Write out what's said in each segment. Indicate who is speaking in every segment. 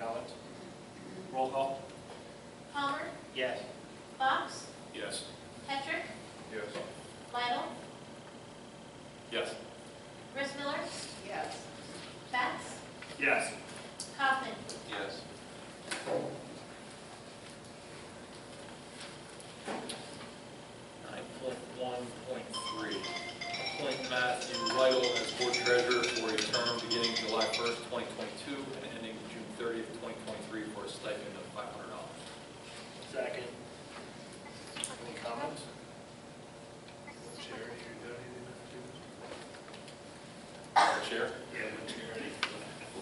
Speaker 1: comments? Roll call?
Speaker 2: Palmer,
Speaker 1: Yes.
Speaker 2: Box,
Speaker 3: Yes.
Speaker 2: Petrick,
Speaker 3: Yes.
Speaker 2: Lidle,
Speaker 3: Yes.
Speaker 2: Rissmiller,
Speaker 4: Yes.
Speaker 2: Betts,
Speaker 1: Yes.
Speaker 2: Kaufman.
Speaker 3: Yes.
Speaker 5: Nine point one point three.
Speaker 3: Appoint Matthew Lidle as board treasurer for a term beginning July 1st, 2022 and ending June 30th, 2023 for a stipend of $500.
Speaker 1: Second. Any comments?
Speaker 3: Madam Chair?
Speaker 1: Yeah.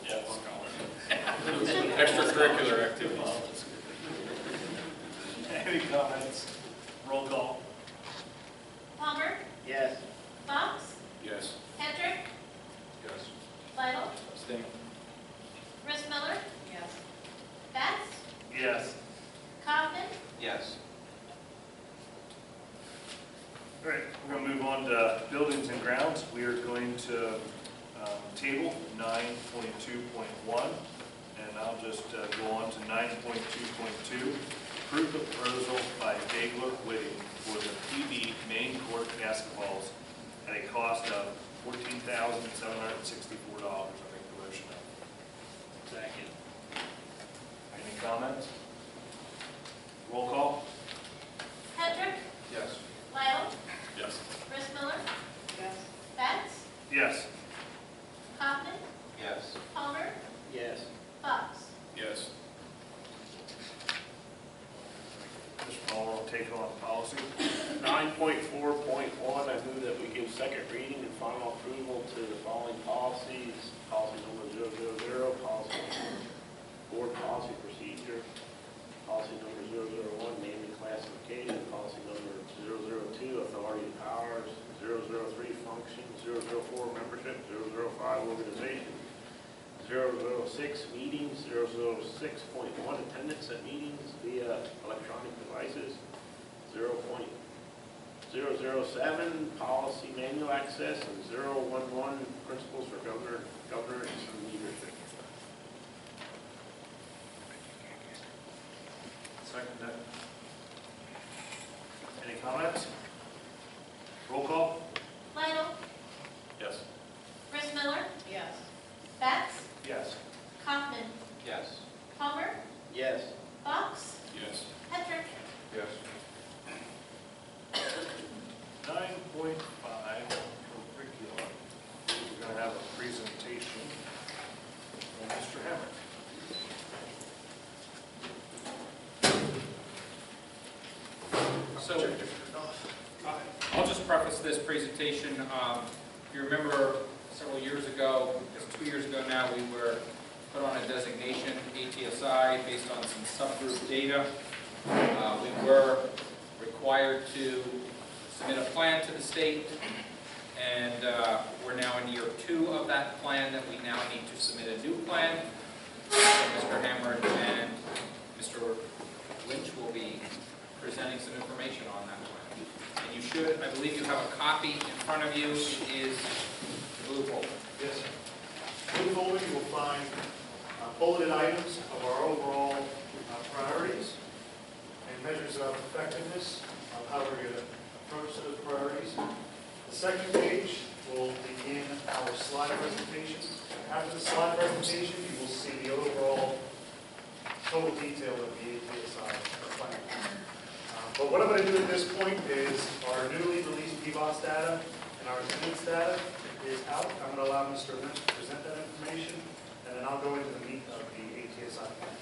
Speaker 3: Yes. Extracurricular activities.
Speaker 1: Any comments? Roll call?
Speaker 2: Palmer,
Speaker 1: Yes.
Speaker 2: Box,
Speaker 3: Yes.
Speaker 2: Petrick,
Speaker 3: Yes.
Speaker 2: Lidle,
Speaker 3: Abstain.
Speaker 2: Rissmiller,
Speaker 4: Yes.
Speaker 2: Betts,
Speaker 1: Yes.
Speaker 2: Kaufman.
Speaker 3: Yes.
Speaker 1: All right, we're going to move on to buildings and grounds. We are going to um, table 9.2.1, and I'll just uh, go on to 9.2.2. Approve the proposal by Dagler Whitting for the PB main court basketballs at a cost of $14,764. I'll make the motion. Second. Any comments? Roll call?
Speaker 2: Petrick,
Speaker 3: Yes.
Speaker 2: Lidle,
Speaker 3: Yes.
Speaker 2: Rissmiller,
Speaker 4: Yes.
Speaker 2: Betts,
Speaker 1: Yes.
Speaker 2: Kaufman,
Speaker 3: Yes.
Speaker 2: Palmer,
Speaker 5: Yes.
Speaker 2: Box.
Speaker 3: Yes.
Speaker 1: Mr. Ball will take on policy.
Speaker 5: Nine point four point one, I move that we give second reading and final approval to the following policies. Policy number zero zero zero, policy board policy procedure, policy number zero zero one, naming classification, policy number zero zero two, authority and powers, zero zero three, function, zero zero four, membership, zero zero five, organization, zero zero six, meetings, zero zero six point one, attendance at meetings via electronic devices, zero point zero zero seven, policy manual access, and zero one one, principles for governor, governor and leadership.
Speaker 1: Second that. Any comments? Roll call?
Speaker 2: Lidle,
Speaker 3: Yes.
Speaker 2: Rissmiller,
Speaker 4: Yes.
Speaker 2: Betts,
Speaker 1: Yes.
Speaker 2: Kaufman,
Speaker 3: Yes.
Speaker 2: Palmer,
Speaker 5: Yes.
Speaker 2: Box,
Speaker 3: Yes.
Speaker 2: Petrick,
Speaker 3: Yes.
Speaker 1: Nine point five, curriculum. We're gonna have a presentation from Mr. Hammer.
Speaker 6: So, I'll just preface this presentation, um, if you remember several years ago, it's two years ago now, we were put on a designation, ATSI, based on some subgroup data. Uh, we were required to submit a plan to the state, and, uh, we're now in year two of that plan, that we now need to submit a new plan. So Mr. Hammer and Mr. Lynch will be presenting some information on that one. And you should, I believe you have a copy in front of you, it is the blue folder.
Speaker 7: Yes. In the folder, you will find uh, bulleted items of our overall uh, priorities and measures of effectiveness of how we're going to approach those priorities. The second page will begin our slide presentation. After the slide presentation, you will see the overall total detail of the APSI plan. Uh, But what I'm going to do at this point is our newly released PBOS data and our attendance data is out. I'm going to allow Mr. Lynch to present that information, and then I'll go into the meat of the ATSI plan.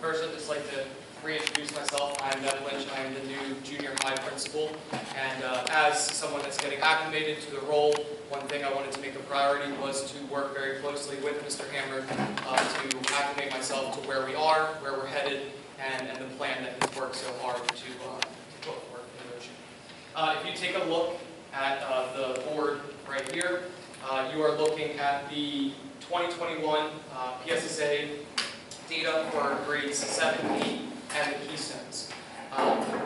Speaker 6: First, I'd just like to reintroduce myself. I'm Ned Lynch. I am the new junior high principal. And uh, as someone that's getting acclimated to the role, one thing I wanted to make a priority was to work very closely with Mr. Hammer uh, to acclimate myself to where we are, where we're headed, and, and the plan that he's worked so hard to, uh, to put forward in motion. Uh, If you take a look at uh, the board right here, uh, you are looking at the 2021 uh, PSSA data for grades 7, 8, and the Keystones. Um,